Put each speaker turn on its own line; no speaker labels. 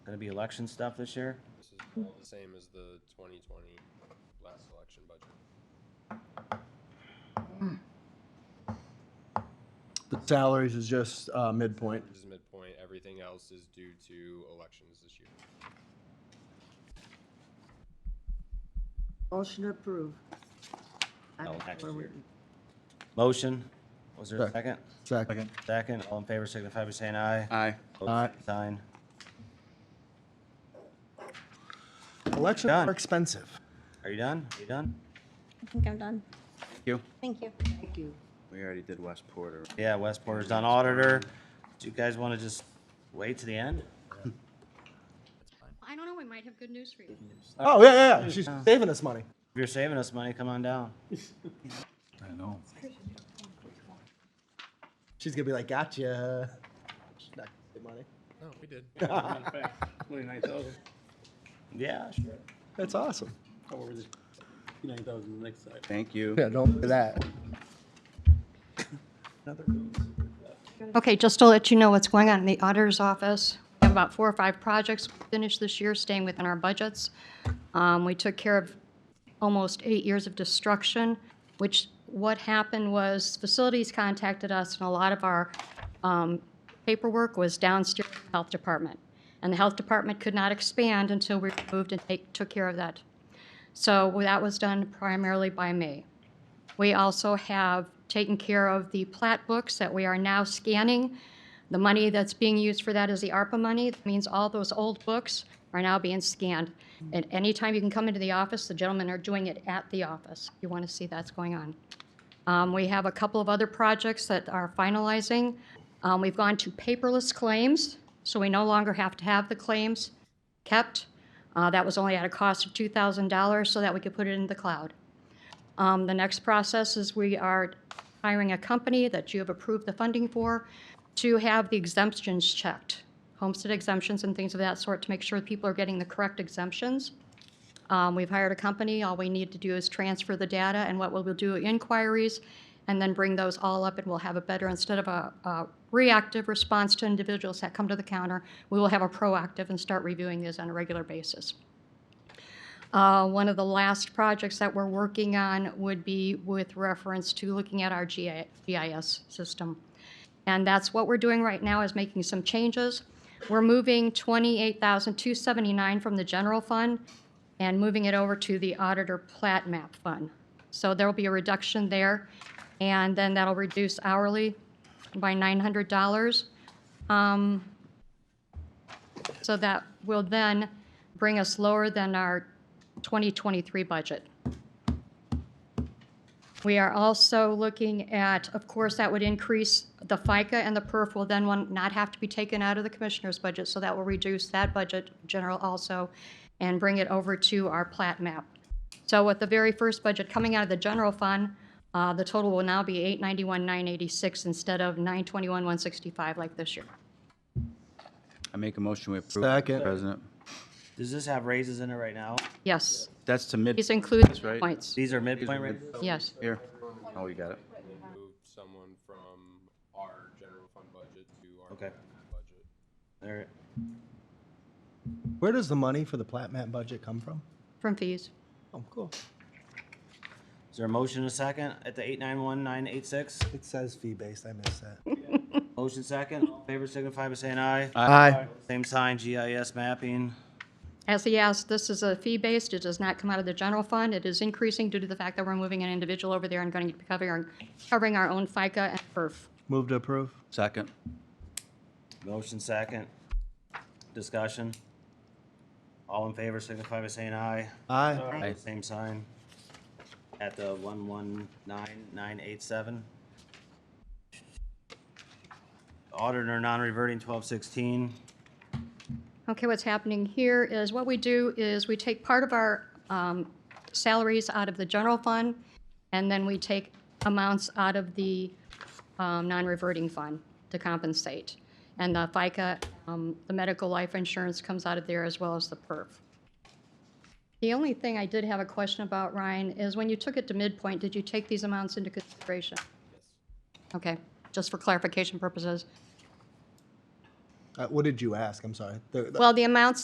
Gonna be election stuff this year?
This is all the same as the 2020 last election budget.
The salaries is just uh, midpoint.
This is midpoint, everything else is due to elections this year.
Motion approved.
No, next year. Motion, was there a second?
Second. Second.
Second.
Second, all in favor signify by saying aye.
Aye.
Aye.
Opposed, same Sign.
Elections
Done.
are expensive.
Are you done? Are you done?
I think I'm done.
Thank you.
Thank you.
Thank you.
We already did West Porter.
Yeah, West Porter's done auditor. Do you guys wanna just wait to the end?
I don't know, we might have good news for you.
Oh, yeah, yeah, yeah. She's saving us money.
If you're saving us money, come on down.
I know.
She's gonna be like, gotcha. She's not gonna get money.
No, Oh, we did.
Twenty-nine thousand,
Yeah, sure.
That's awesome.
however, the nine thousand the next side.
Thank you.
Yeah, don't do that.
Okay, just to let you know what's going on in the auditor's office, we have about four or five projects finished this year, staying within our budgets. Um, We took care of almost eight years of destruction, which, what happened was facilities contacted us, and a lot of our um, paperwork was downstairs in the health department. And the health department could not expand until we moved and take- took care of that. So that was done primarily by me. We also have taken care of the plat books that we are now scanning. The money that's being used for that is the ARPA money. That means all those old books are now being scanned. And anytime you can come into the office, the gentlemen are doing it at the office. You want to see that's going on. Um, we have a couple of other projects that are finalizing. Um, we've gone to paperless claims, so we no longer have to have the claims kept. Uh, that was only at a cost of $2,000 so that we could put it in the cloud. Um, The next process is we are hiring a company that you have approved the funding for to have the exemptions checked, homestead exemptions and things of that sort, to make sure people are getting the correct exemptions. Um, We've hired a company. All we need to do is transfer the data and what we'll do inquiries, and then bring those all up, and we'll have a better, instead of a a reactive response to individuals that come to the counter, we will have a proactive and start reviewing these on a regular basis. Uh, One of the last projects that we're working on would be with reference to looking at our GI GIS system. And that's what we're doing right now, is making some changes. We're moving 28,279 from the general fund and moving it over to the auditor plat map fund. So there'll be a reduction there, and then that'll reduce hourly by $900. Um, So that will then bring us lower than our 2023 budget. We are also looking at, of course, that would increase the FICA and the perf will then one- not have to be taken out of the commissioner's budget, so that will reduce that budget general also and bring it over to our plat map. So with the very first budget coming out of the general fund, uh, the total will now be 891,986 instead of 921,165 like this year.
I make a motion we approve.
Second.
President.
Does this have raises in it right now?
Yes,
That's to mid
these include
That's right.
points.
These are midpoint raises?
Yes.
here. Oh, you got it.
We Moved someone from our general fund budget to our
Okay.
plat map budget.
All right.
Where does the money for the plat map budget come from?
From fees.
Oh, cool.
Is there a motion and a second at the eight nine one nine eight six?
It says fee-based. I missed that.
Motion second, all in favor signify by saying aye.
Aye.
Same sign, GIS mapping.
As he asked, this is a fee-based, it does not come out of the general fund, it is increasing due to the fact that we're moving an individual over there and going to be covering, our- covering our own FICA and PERF.
Move to approve.
Second.
Motion second. Discussion. All in favor signify by saying aye.
Aye.
Aye.
Same sign. At the one one nine nine eight seven. Auditor non-reverting twelve sixteen.
Okay, what's happening here is what we do is we take part of our um, salaries out of the general fund, and then we take amounts out of the um, non-reverting fund to compensate. And the FICA, um, the medical life insurance comes out of there as well as the PERF. The only thing I did have a question about, Ryan, is when you took it to midpoint, did you take these amounts into consideration? Okay, just for clarification purposes.
Uh, what did you ask? I'm sorry. The- the-
Well, the amounts